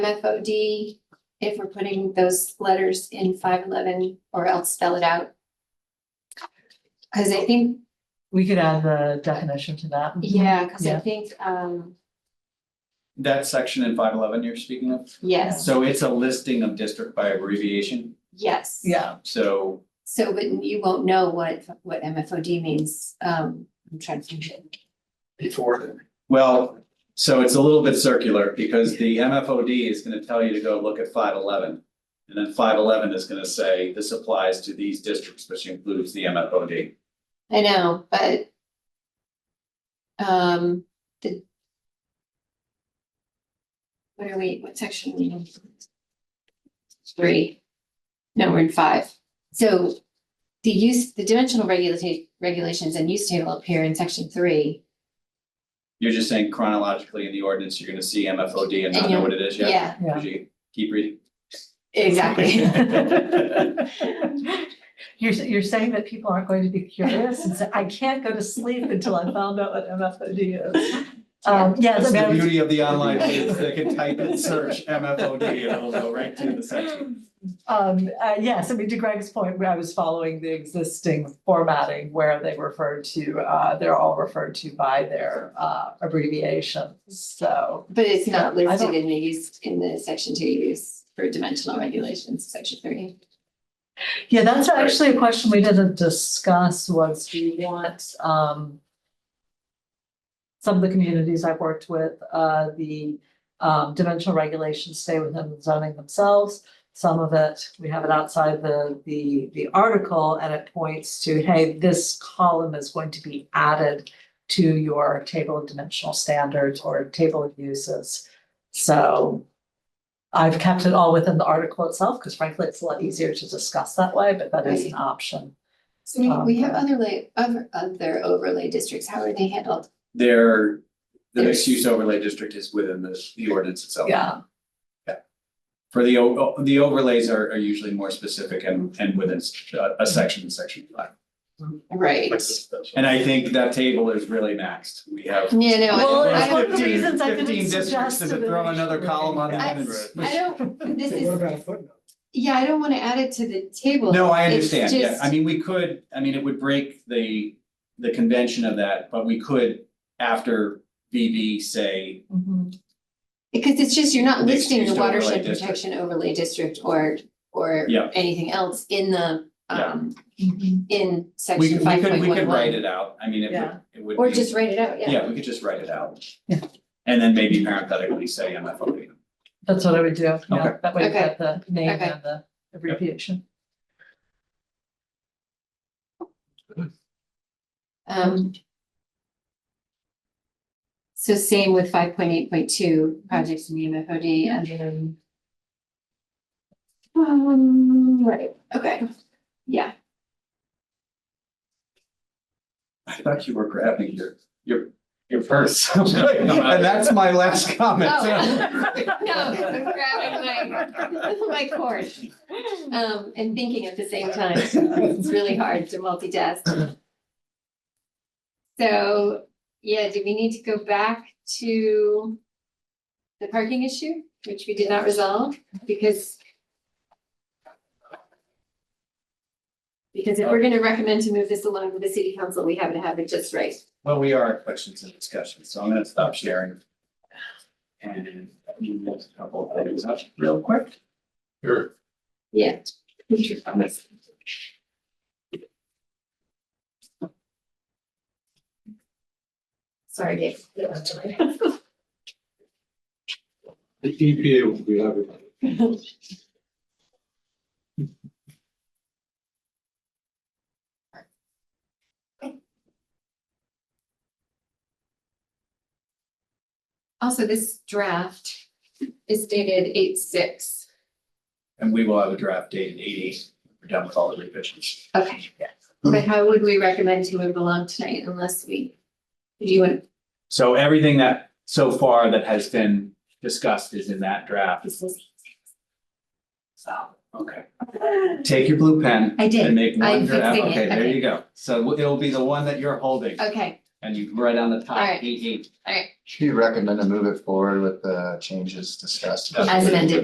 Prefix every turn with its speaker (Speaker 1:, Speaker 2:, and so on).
Speaker 1: MFOD, if we're putting those letters in five eleven or else spell it out. Cause I think,
Speaker 2: We could add the definition to that.
Speaker 1: yeah, cause I
Speaker 2: Mm-hmm. Yeah.
Speaker 1: think, um,
Speaker 3: That section in five eleven you're speaking of,
Speaker 1: yes,
Speaker 3: so it's a listing of district by abbreviation,
Speaker 1: yes.
Speaker 2: Yeah,
Speaker 3: so
Speaker 1: So, but you won't know what, what MFOD means, um, I'm trying to think it.
Speaker 4: before then.
Speaker 3: Well, so it's a little bit circular because the MFOD is gonna tell you to go look at five eleven. And then five eleven is gonna say this applies to these districts, which includes the MFOD.
Speaker 1: I know, but. Um, the. What are we, what section are we in? Three. No, we're in five. So the use, the dimensional regulata- regulations and use table appear in section three.
Speaker 3: You're just saying chronologically in the ordinance, you're gonna see MFOD and not know what it is yet?
Speaker 1: Yeah,
Speaker 2: yeah.
Speaker 3: Could you keep reading?
Speaker 1: exactly.
Speaker 2: You're, you're saying that people aren't going to be curious and say, I can't go to sleep until I found out what MFOD is. Um, yes,
Speaker 3: That's
Speaker 2: I
Speaker 3: the
Speaker 2: mean,
Speaker 3: beauty of the online, is they can type and search MFOD and it'll go right to the section.
Speaker 2: um, uh, yes, I mean, to Greg's point, where I was following the existing formatting where they refer to, uh, they're all referred to by their, uh, abbreviation, so.
Speaker 1: But it's not
Speaker 2: Yeah, I
Speaker 1: listed
Speaker 2: don't-
Speaker 1: in the use, in the section two use for dimensional regulations, section three.
Speaker 2: Yeah, that's actually a question we didn't discuss was do you want, um. Some of the communities I've worked with, uh, the, um, dimensional regulations stay within the zoning themselves. Some of it, we have it outside the, the, the article and it points to, hey, this column is going to be added. To your table of dimensional standards or table of uses. So I've kept it all within the article itself, because frankly, it's a lot easier to discuss that way, but that is an option.
Speaker 1: So we, we have
Speaker 2: Um,
Speaker 1: other lay, other, other overlay districts, how are they handled?
Speaker 3: Their, the
Speaker 1: Yes.
Speaker 3: mixed use overlay district is within the, the ordinance itself.
Speaker 2: Yeah,
Speaker 3: For the, o- o- the overlays are, are usually more specific and, and within s- a- a section, section five.
Speaker 1: Right.
Speaker 3: And I think that table is really maxed. We have.
Speaker 1: Yeah, no, I
Speaker 2: Well,
Speaker 1: don't- I
Speaker 2: it's one
Speaker 1: don't,
Speaker 2: of the
Speaker 3: Fifteen-
Speaker 2: reasons I didn't
Speaker 3: Fifteen districts,
Speaker 2: suggest
Speaker 3: to
Speaker 2: it
Speaker 3: throw another
Speaker 2: initially.
Speaker 3: column on
Speaker 1: I-
Speaker 3: that. and-
Speaker 1: I don't, this
Speaker 4: What
Speaker 1: is,
Speaker 4: about a footnote?
Speaker 1: yeah, I don't want to add it to the table.
Speaker 3: No, I
Speaker 1: It's
Speaker 3: understand, yeah,
Speaker 1: just-
Speaker 3: I mean, we could, I mean, it would break the, the convention of that, but we could, after BB, say,
Speaker 2: Mhm.
Speaker 1: Because it's just, you're not
Speaker 3: Mixed
Speaker 1: listing
Speaker 3: use
Speaker 1: the
Speaker 3: overlay
Speaker 1: watershed
Speaker 3: district.
Speaker 1: protection overlay district or, or
Speaker 3: Yeah.
Speaker 1: anything else in the,
Speaker 3: Yeah.
Speaker 1: um,
Speaker 2: Mhm.
Speaker 1: in
Speaker 3: we
Speaker 1: section
Speaker 3: could, we
Speaker 1: five
Speaker 3: could,
Speaker 1: point
Speaker 3: we could
Speaker 1: one
Speaker 3: write
Speaker 1: one.
Speaker 3: it out, I mean, it
Speaker 2: Yeah.
Speaker 3: would, it would
Speaker 1: Or
Speaker 3: be-
Speaker 1: just write it out, yeah.
Speaker 3: Yeah, we could just write it out.
Speaker 2: Yeah.
Speaker 3: And then maybe parenthetically say MFOD.
Speaker 2: That's what I would do, yeah,
Speaker 3: Okay.
Speaker 2: that way you
Speaker 1: Okay.
Speaker 2: get the name
Speaker 1: Okay.
Speaker 2: and the abbreviation.
Speaker 1: Um. So same with five point eight point two, projects in the MFOD and then. Um, right, okay, yeah,
Speaker 3: I thought you were grabbing your, your, your purse. And that's my last comment.
Speaker 1: Oh. no, I'm grabbing my, my cord, um, and thinking at the same time, it's really hard to multitask. So, yeah, do we need to go back to the parking issue, which we did not resolve, because because if we're gonna recommend to move this along to the city council, we have to have it just right.
Speaker 3: Well, we are at questions and discussions, so I'm gonna stop sharing. And move a couple of things up real quick.
Speaker 4: Sure.
Speaker 1: Yeah. Sorry, Dave.
Speaker 4: The EPA will be having.
Speaker 1: Also, this draft is dated eight six.
Speaker 3: And we will have a draft dated eighty, we're done with all the revisions.
Speaker 1: Okay. But how would we recommend to move along tonight unless we, do you want,
Speaker 3: So everything that, so far that has been discussed is in that draft.
Speaker 1: this is. So,
Speaker 3: Okay. Take your blue pen.
Speaker 1: I did.
Speaker 3: And make one
Speaker 1: I'm
Speaker 3: draft,
Speaker 1: fixing it.
Speaker 3: okay, there
Speaker 1: Okay.
Speaker 3: you go. So it'll be the one that you're holding.
Speaker 1: okay,
Speaker 3: and you right on the top,
Speaker 1: All right.
Speaker 3: eight, eight.
Speaker 5: Should you recommend to move it forward with the changes discussed?
Speaker 3: As
Speaker 1: amended.